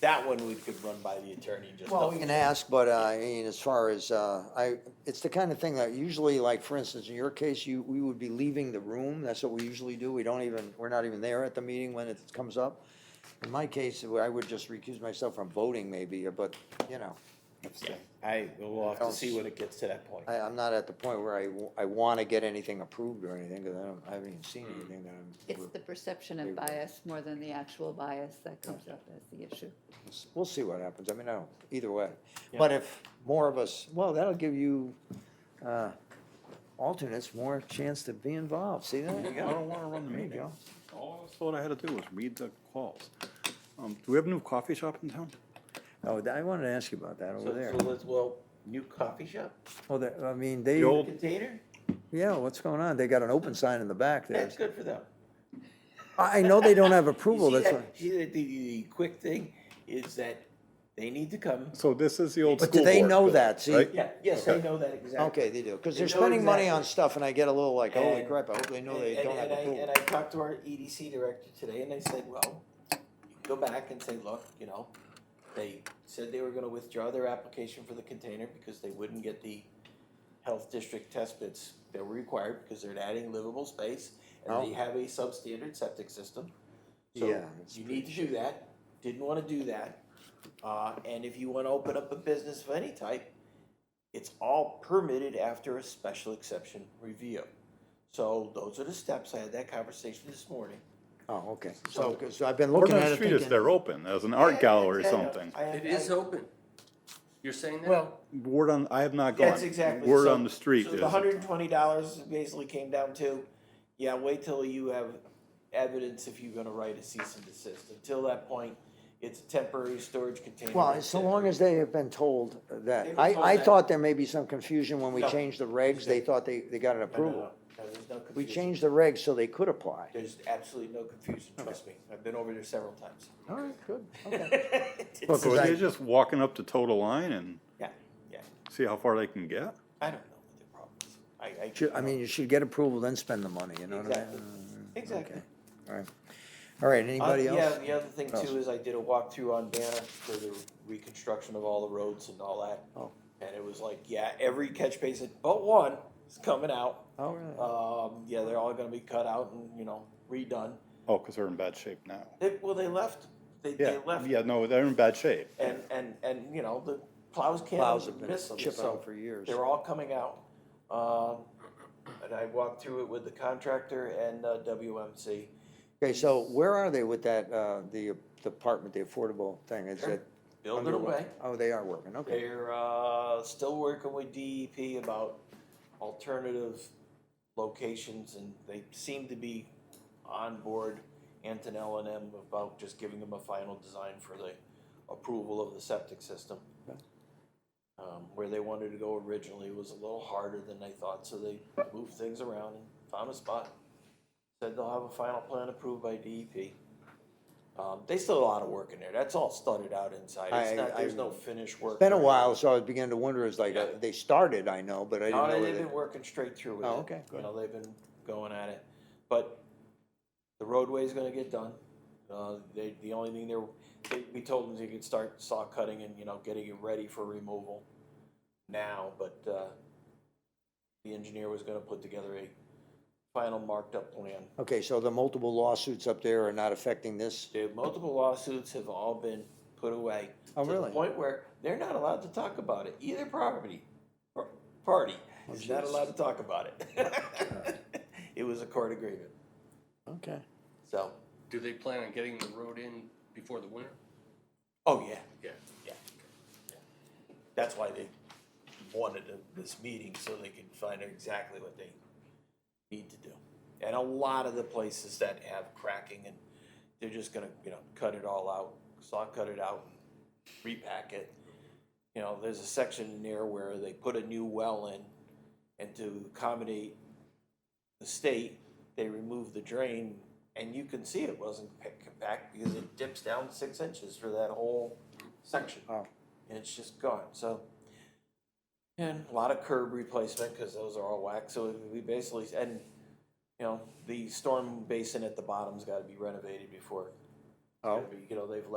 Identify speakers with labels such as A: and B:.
A: that one we could run by the attorney and just.
B: Well, we can ask, but uh, I mean, as far as, uh, I, it's the kind of thing that usually, like, for instance, in your case, you, we would be leaving the room. That's what we usually do. We don't even, we're not even there at the meeting when it comes up. In my case, I would just recuse myself from voting maybe, uh, but, you know,
A: Yeah, I, we'll have to see when it gets to that point.
B: I, I'm not at the point where I, w- I want to get anything approved or anything, because I don't, I haven't even seen anything that I'm.
C: It's the perception of bias more than the actual bias that comes up as the issue.
B: We'll see what happens. I mean, I don't, either way.
A: Yeah.
B: But if more of us, well, that'll give you, uh, alternates more chance to be involved. See that?
A: I don't wanna run the
B: There you
A: meeting.
B: go.
D: All I was told I had to do was read the calls. Um, do we have a new coffee shop in town?
B: Oh, I wanted to ask you about that
A: So,
B: over there.
A: so let's, well, new coffee shop,
B: Oh, that, I mean, they,
D: The old-
A: container,
B: yeah, what's going on? They got an open sign in the back there.
A: that's good for them.
B: I, I know they don't have
A: You
B: approval,
A: see
B: that's
A: that-
B: why.
A: See, the, the, the quick thing is that they need to come.
D: So this is the old
B: But do
D: school
B: they
D: board
B: know
D: building,
B: that? See,
D: right?
A: Yeah, yes, they
D: Okay.
A: know that exactly.
B: Okay, they do, because
A: They
B: they're
A: know
B: spending money on
A: exactly.
B: stuff and I get a little like, holy
A: And-
B: crap, I hope they know they
A: And-
B: don't have
A: and I- And
B: approval.
A: I talked to our EDC director today and I said, well, you can go back and say, look, you know, they said they were gonna withdraw their application for the container because they wouldn't get the health district test bits that were required because they're adding livable space and they
B: Oh.
A: have a substandard septic system. So
B: Yeah, it's
A: you need to do that, didn't wanna do that. Uh, and if you wanna open up a business of any type, it's all permitted after a special exception review. So those are the steps. I had that conversation this morning.
B: Oh, okay,
A: So-
B: so, 'cause I've been
D: Word
B: looking
D: on
B: at
D: the
B: it
D: street is
B: thinking,
D: they're open as an art gallery or
A: I know.
D: something.
A: I-
E: It
A: I-
E: is open. You're saying that?
A: Well,
D: Word on, I have not gone.
A: that's exactly.
D: Word
A: so-
D: on the street
A: So
D: is,
A: the hundred and twenty dollars basically came down to, yeah, wait till you have evidence if you're gonna write a cease and desist. Until that point, it's a temporary storage container.
B: well, so long as they have been told
A: They
B: that.
A: were
B: I,
A: told
B: I
A: that.
B: thought there may be some confusion when we
A: No.
B: changed the regs, they thought they, they got an
A: No, no, no.
B: approval.
A: No, there's no
B: We
A: confusion.
B: changed the regs so they could apply.
A: There's absolutely no confusion, trust me. I've been over there several times.
B: All right, good, okay.
A: It's-
D: so
B: I-
D: they're just walking up to total line and
A: Yeah, yeah.
D: see how far they can get?
A: I don't know what the problem is. I, I.
B: Should, I mean, you should get approval, then spend the money, you know what I
A: Exactly,
B: mean?
A: exactly.
B: All right, all right,
A: Uh,
B: anybody
A: Yeah,
B: else? Oh.
A: the other thing
B: Else?
A: too is I did a walkthrough on Banner for the reconstruction of all the roads and all that.
B: Oh.
A: And it was like, yeah, every catch basin but one is coming out.
B: Oh, really?
A: Um, yeah, they're all gonna be cut out and, you know, redone.
D: Oh, because they're in bad shape now.
A: They, well, they left, they,
D: Yeah,
A: they left.
D: yeah, no, they're in bad shape.
A: And, and, and, you know, the plows
B: Plows have
A: can't
B: been
A: miss them,
B: chipping
A: so
B: out for years.
A: they're all coming out. Um, and I walked through it with the contractor and, uh, WMC.
B: Okay, so where are they with that, uh, the apartment, the affordable thing, is
A: They're
B: it?
A: Building
B: underway?
A: away.
B: Oh, they are working, okay.
A: They're uh, still working with DEP about alternative locations, and they seem to be on board, Antonella and them, about just giving them a final design for the approval of the septic system. Um, Where they wanted to go originally was a little harder than they thought, so they moved things around and found a spot. Said they'll have a final plan approved by DEP. Um, They still have a lot of work in there, that's all studded out inside,
B: I-
A: it's not, there's
B: I-
A: no finished work.
B: Been a
A: or-
B: while, so I began to wonder, is like,
A: Yeah.
B: uh, they started, I know, but I didn't
A: no, they-
B: know. where
A: Oh, they've
B: they-
A: been working straight through with it.
B: Oh, okay,
A: You
B: good.
A: know, they've been going at it, but the roadway's gonna get done. Uh, they, the only thing they're, they, we told them they could start saw cutting and, you know, getting it ready for removal now, but, uh, the engineer was gonna put together a final marked up plan.
B: Okay, so the multiple lawsuits up there are not affecting this?
A: The multiple lawsuits have all been put away.
B: Oh,
A: To
B: really?
A: the point where they're not allowed to talk about it, either property, par- party is not
B: geez.
A: allowed to talk about it. It was a court agreement,
B: Okay.
A: so,
E: Do they plan on getting the road in before the winter?
A: oh, yeah,
E: Yeah.
A: yeah. yeah. That's why they wanted a- this meeting, so they could find out exactly what they need to do. And a lot of the places that have cracking and they're just gonna, you know, cut it all out, saw cut it out, repack it. You know, there's a section in there where they put a new well in and to accommodate the state, they removed the drain and you can see it wasn't pa- compact because it dips down six inches for that whole section.
B: Oh.
A: And it's just gone, so. And a lot of curb replacement because those are all whack, so we basically, and you know, the storm basin at the bottom's gotta be renovated before.
B: Oh.
A: You know, they've